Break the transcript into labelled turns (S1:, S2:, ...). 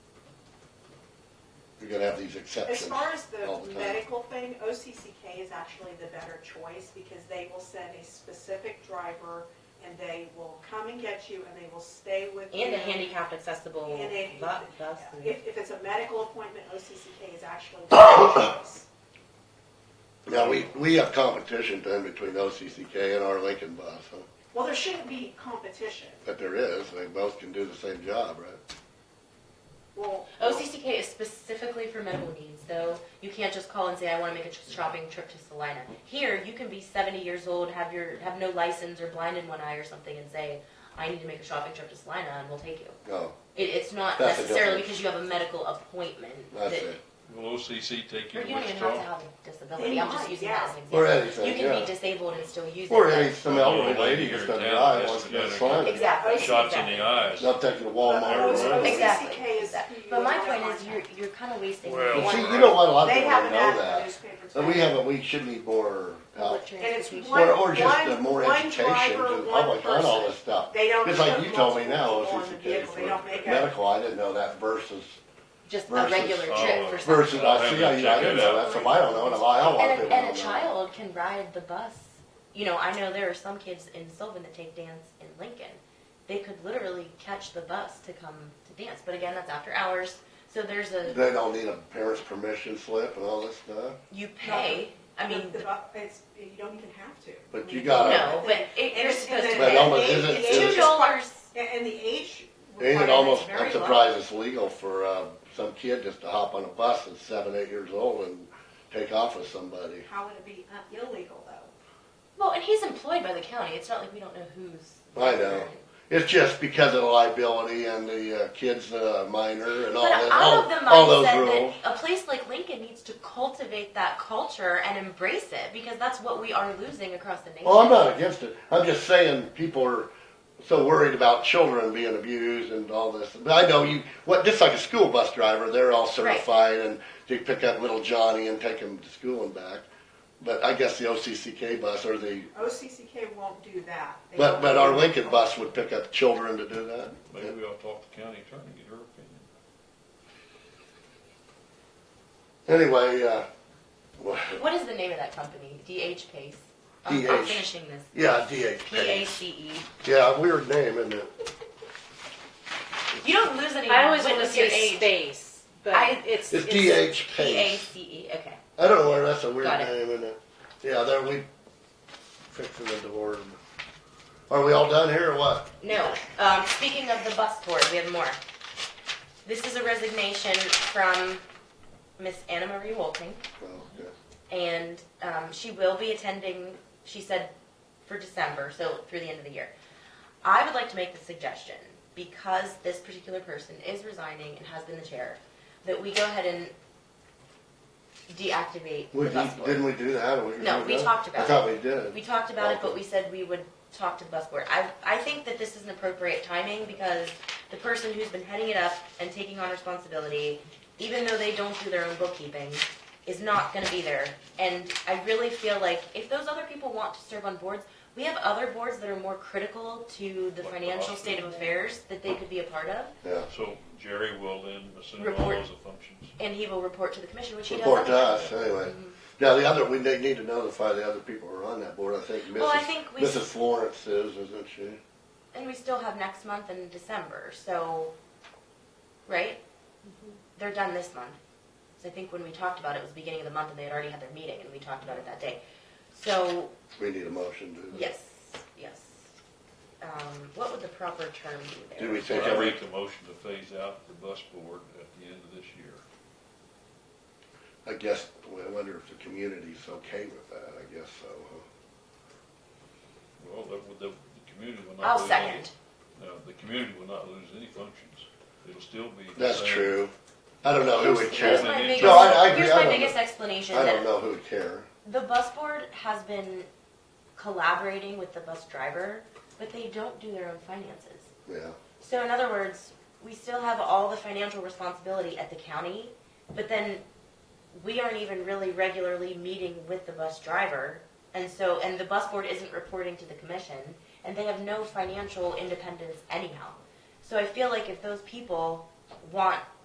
S1: gotta have these
S2: As
S1: exceptions
S2: far as
S1: all
S2: the
S1: the time.
S2: medical thing, OCCK is actually the better choice because they will send a specific driver and they will come and get you and they will stay with you.
S3: And a handicapped accessible
S2: And they-
S3: bu- bus.
S2: If, if it's a medical appointment, OCCK is actually the better choice.
S1: Yeah, we, we have competition then between OCCK and our Lincoln bus, huh?
S2: Well, there shouldn't be competition.
S1: but there is, they both can do the same job, right?
S2: Well,
S3: OCCK is specifically for medical needs, though. You can't just call and say, I want to make a tr- shopping trip to Salina. Here, you can be 70 years old, have your have no license or blind in one eye or something, and say, I need to make a shopping trip to Salina, and we'll take you.
S1: No,
S3: It, it's not
S1: That's the
S3: necessarily
S1: difference.
S3: because you have a medical appointment.
S1: that's
S3: that-
S1: it.
S4: Will OCC take you
S3: Or
S4: to
S3: you don't even have to
S4: Wichita?
S3: have a disability. I'm just
S2: They
S3: using
S2: might,
S3: that as an example.
S1: Or anything,
S3: You can
S1: yeah.
S3: be disabled and still use it.
S1: Or
S3: but-
S1: any, some elderly lady who's gonna drive, wants to go to Slaney.
S3: Exactly.
S4: Shots in
S3: exactly.
S4: the eyes.
S1: Not taking a
S2: But
S1: Walmart. or
S2: OCCK
S1: whatever.
S3: Exactly.
S2: is who you
S3: But my
S2: want to
S3: point is, you're,
S2: contact.
S3: you're kind of wasting.
S4: Well,
S3: one-
S1: Well, see, you know what, a lot of
S2: They
S1: people
S2: have
S1: don't
S2: an
S1: know
S2: ad in the
S1: that,
S2: newspaper.
S1: but we
S2: too.
S1: have, a- we should need more
S3: Public
S1: help.
S3: transportation.
S2: one-
S1: Or, or just uh, more
S2: one
S1: education
S2: driver,
S1: to the
S2: one
S1: public on all
S2: person.
S1: this stuff.
S2: They don't
S1: It's like
S2: put
S1: you told me
S2: multiple
S1: now,
S2: people on the
S1: OCCK
S2: vehicle. They don't make
S1: for
S2: a-
S1: medical, I didn't know that versus,
S3: Just a
S1: versus-
S3: regular trip for some.
S1: versus, I see, I, I didn't know that, so I don't know, and I want people
S3: And
S1: to
S3: a,
S1: know.
S3: and a child can ride the bus. You know, I know there are some kids in Sylvan that take dance in Lincoln. They could literally catch the bus to come to dance, but again, that's after hours. So there's a,
S1: They don't need a parent's permission slip and all this stuff,
S3: you pay, I mean,
S2: The- the bu- it's, you don't even have to.
S1: But
S2: I
S1: you
S2: mean,
S1: gotta-
S3: no, but it,
S2: And
S3: you're
S2: it's-
S3: supposed to
S2: and
S1: But
S2: the-
S1: almost-
S3: pay.
S2: and
S1: isn't-
S2: the age-
S1: isn't-
S2: age
S3: Two dollars.
S2: And and the age.
S1: ain't it
S2: requirement's
S1: almost,
S2: very
S1: I'm
S2: low.
S1: surprised it's legal for, uh, some kid just to hop on a bus that's seven, eight years old and take off with somebody.
S2: How would it be uh, illegal though?
S3: Well, and he's employed by the county. It's not like we don't know who's.
S1: I know. It's just because of the liability and the uh, kids uh, minor and all
S3: But
S1: that,
S3: I'm
S1: all,
S3: of the
S1: all those
S3: mindset
S1: rules.
S3: that a place like Lincoln needs to cultivate that culture and embrace it because that's what we are losing across the nation.
S1: Well, I'm not against it. I'm just saying people are so worried about children being abused and all this. But I know you, what just like a school bus driver, they're all certified and they pick up little Johnny and take him to school and back. But I guess the OCCK bus or the
S2: OCCK won't do that. They
S1: but
S2: won't
S1: but
S2: do
S1: our
S2: that.
S1: Lincoln bus would pick up children to do that.
S4: Maybe we ought to talk to the county attorney, get her opinion.
S1: Anyway, uh, well,
S3: What is the name of that company? DH Pace. I'm, I'm
S1: DH.
S3: finishing this.
S1: yeah, DH.
S3: P A C E.
S1: Yeah, weird name, isn't it?
S3: You don't lose any.
S5: I always
S3: with
S5: want to
S3: your
S5: say
S3: age.
S5: space, but
S3: I-
S5: it's,
S1: It's DH
S3: P A
S1: Pace.
S3: C E. Okay.
S1: I don't know where that's a weird
S3: Got it.
S1: name, isn't it? Yeah, there we fixing the door. Are we all done here or what?
S3: No. Um, speaking of the bus board, we have more. This is a resignation from Miss Anna Marie Wolting.
S1: Well, yeah.
S3: and um, she will be attending, she said, for December, so through the end of the year. I would like to make the suggestion, because this particular person is resigning and has been the chair, that we go ahead and deactivate
S1: We
S3: the bus
S1: did, didn't
S3: board.
S1: we do that? Or we
S3: No,
S1: did
S3: we
S1: that?
S3: talked about
S1: I thought we did.
S3: We talked about it, but we said we would talk to the bus board. I, I think that this is an appropriate timing, because the person who's been heading it up and taking on responsibility, even though they don't do their own bookkeeping, is not gonna be there. And I really feel like if those other people want to serve on boards, we have other boards that are more critical to the
S4: Like the
S3: financial
S4: hospital.
S3: state of affairs that they could be a part of,
S1: yeah.
S4: So Jerry will then assume all
S3: Report.
S4: those functions.
S3: and he will report to the commission, which he does.
S1: Report to
S3: anyway.
S1: us anyway. Now the other, we they need to notify the other people who are on that board. I think Mrs.
S3: Well, I think we-
S1: Mrs. Florence is, isn't she?
S3: And we still have next month and December, so, right? They're done this month. So I think when we talked about it, it was beginning of the month and they had already had their meeting and we talked about it that day. So,
S1: We need a motion to.
S3: yes, yes. Um, what would the proper term be there?
S1: Do we
S4: So
S1: think
S4: I
S1: every
S4: make the motion to phase out the bus board at the end of this year.
S1: I guess, I wonder if the community's okay with that, I guess so. huh?
S4: Well, the, the, the community will not.
S3: I'll
S4: lose
S3: second.
S4: any- No, the community will not lose any functions. It'll still be. the
S1: That's
S4: same.
S1: true. Uh, I don't know who would
S3: Here's here's
S1: care.
S3: my
S4: No,
S3: biggest,
S1: I- I agree.
S3: here's
S1: I
S3: my
S1: don't know.
S3: biggest explanation
S1: I don't
S3: that
S1: know who would care.
S3: the bus board has been collaborating with the bus driver, but they don't do their own finances.
S1: Yeah.
S3: So in other words, we still have all the financial responsibility at the county, but then we aren't even really regularly meeting with the bus driver. And so, and the bus board isn't reporting to the commission, and they have no financial independence anyhow. So I feel like if those people want